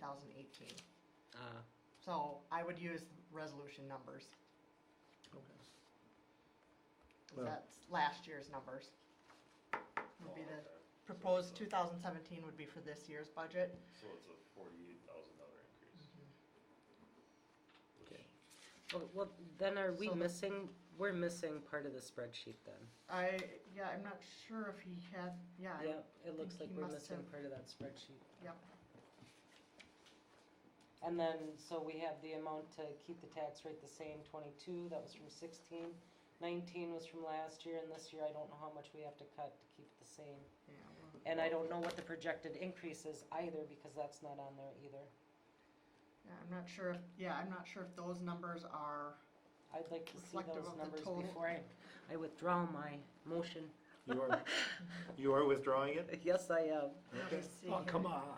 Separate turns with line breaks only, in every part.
thousand eighteen.
Uh,
So I would use resolution numbers,
okay.
'cause
Well-
that's last year's numbers. Would be the, proposed two thousand seventeen would be for this year's budget.
So it's a forty-eight thousand dollar increase.
Okay. Well, Oh, well, then are we
So the-
missing, we're missing part of the spreadsheet then.
I, yeah, I'm not sure if he had, yeah, I-
Yep, it looks
think
like
he
we're
must
missing
have-
part of that spreadsheet.
Yep.
And then, so we have the amount to keep the tax rate the same, twenty-two, that was from sixteen. Nineteen was from last year, and this year I don't know how much we have to cut to keep it the same.
yeah, well,
And I don't know what the projected increase is either, because that's not on there either.
yeah, I'm not sure, if yeah, I'm not sure if those numbers are,
I'd like to see
Reflective
those
of the
numbers
total.
before I, I withdraw my motion.
You are, you are withdrawing it?
Yes, I am.
let me
Okay.
see.
Oh,
here.
come on.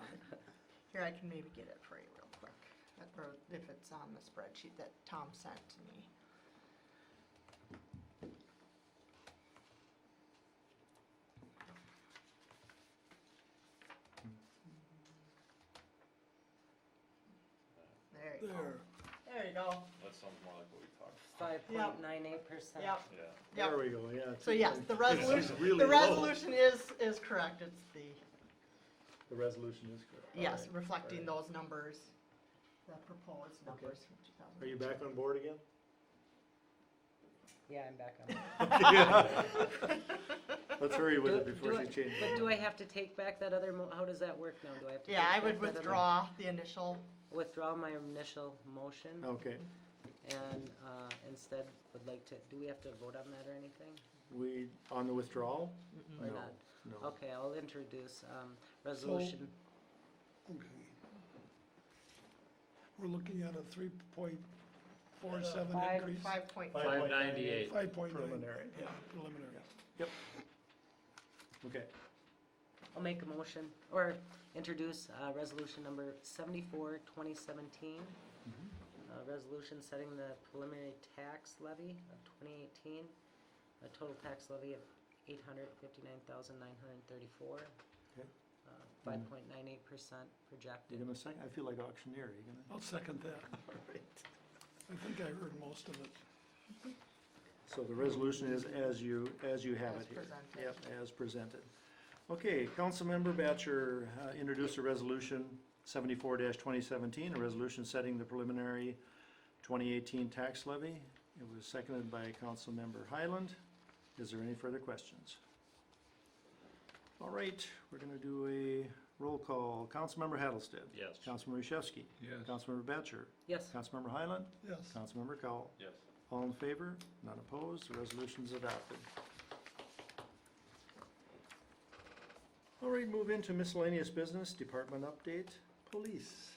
Here, I can maybe get it for you real quick, That- or if it's on the spreadsheet that Tom sent to me. There you go.
There,
There you go.
That sounds more like what we talked.
Five point nine eight percent.
Yep,
Yeah.
there
yep.
we go, yeah.
So yes, the resolution,
really
the
low.
resolution is, is correct. It's the,
The resolution is correct.
yes,
All right.
reflecting
all
those numbers, the proposed numbers from two thousand.
Are you back on board again?
Yeah, I'm back on.
Let's hurry with
Do-
it before
do
she
I-
changes.
But do I have to take back that other mo, how does that work now? Do I have to?
Yeah, I
take
would
back that other-
withdraw the initial,
Withdraw my initial motion
Okay,
and, uh, instead would like to, do we have to vote on that or anything?
we, on the withdrawal?
Or
No,
not?
No.
Okay, I'll introduce, um, resolution.
Okay. We're looking at a three point four seven
Five-
increase.
five point,
Five ninety-eight.
Five point nine.
Preliminary, yeah.
Preliminary.
Okay,
I'll make a motion or introduce, uh, resolution number seventy-four, twenty seventeen.
Mm-hmm.
Uh, resolution setting the preliminary tax levy of twenty eighteen, a total tax levy of eight hundred fifty-nine thousand nine hundred thirty-four. Uh,
Okay.
Five point nine eight percent projected.
you're gonna second, I feel like auctioneer, you gonna?
I'll second that. I think I heard most of it.
So the resolution is as you, as you have
As
it here.
presented.
Yep, as presented. Okay, Councilmember Batcher uh, introduced a resolution seventy-four twenty seventeen, a resolution setting the preliminary twenty eighteen tax levy. It was seconded by Councilmember Highland. Is there any further questions? All right, we're gonna do a roll call. Councilmember Hattlestead?
Yes.
Councilmember Yashewski?
Yes.
Councilmember Batcher?
Yes.
Councilmember Highland?
Yes.
Councilmember Cowell?
Yes.
All in favor? None opposed? The resolution's adopted. All right, move into miscellaneous business, department update, police.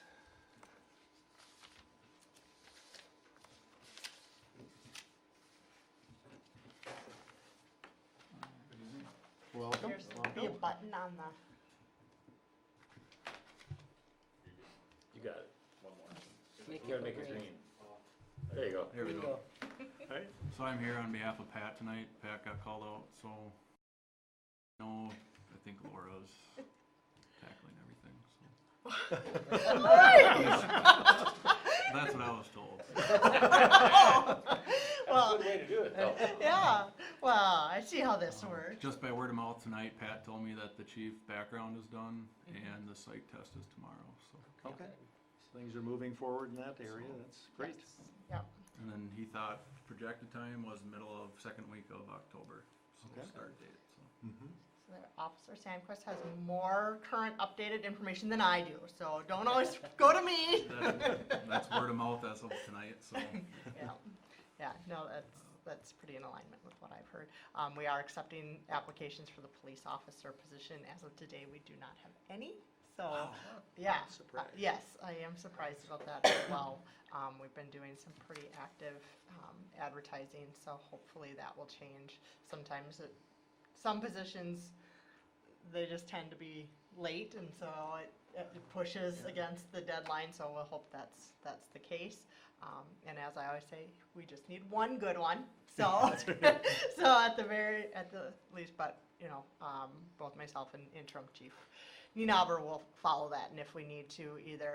Welcome.
there's be a button on the.
You got it. One more.
Make
You gotta
it
make it
green.
green. There you go.
Here we
Bingo.
go.
All right.
So I'm here on behalf of Pat tonight. Pat got called out, so no, I think Laura's tackling everything, so. That's what I was told.
Well,
Good way to do it though.
yeah, well, I see how this
Um,
works.
Just by word of mouth tonight, Pat told me that the chief background is done and the psych test is tomorrow, so.
Okay. Things are moving forward in that area. That's great.
Yes, Yep,
And then he thought projected time was middle of second week of October, so
Okay.
start date, so.
so there- Officer Sandquist has more current updated information than I do, so don't always go to me.
That- That's word of mouth as of tonight, so.
Yeah, yeah, no, that's, that's pretty in alignment with what I've heard. Um, we are accepting applications for the police officer position. As of today, we do not have any, so, yeah. uh,
Surprised.
Yes, I am surprised about that as well. Um, we've been doing some pretty active, um, advertising, so hopefully that will change. Sometimes it, some positions, they just tend to be late, and so it, it pushes against the deadline, so we'll hope that's, that's the case. Um, and as I always say, we just need one good one. So, so at the very, at the least, but you know, um, both myself and interim chief Ninaber will follow that, and if we need to, either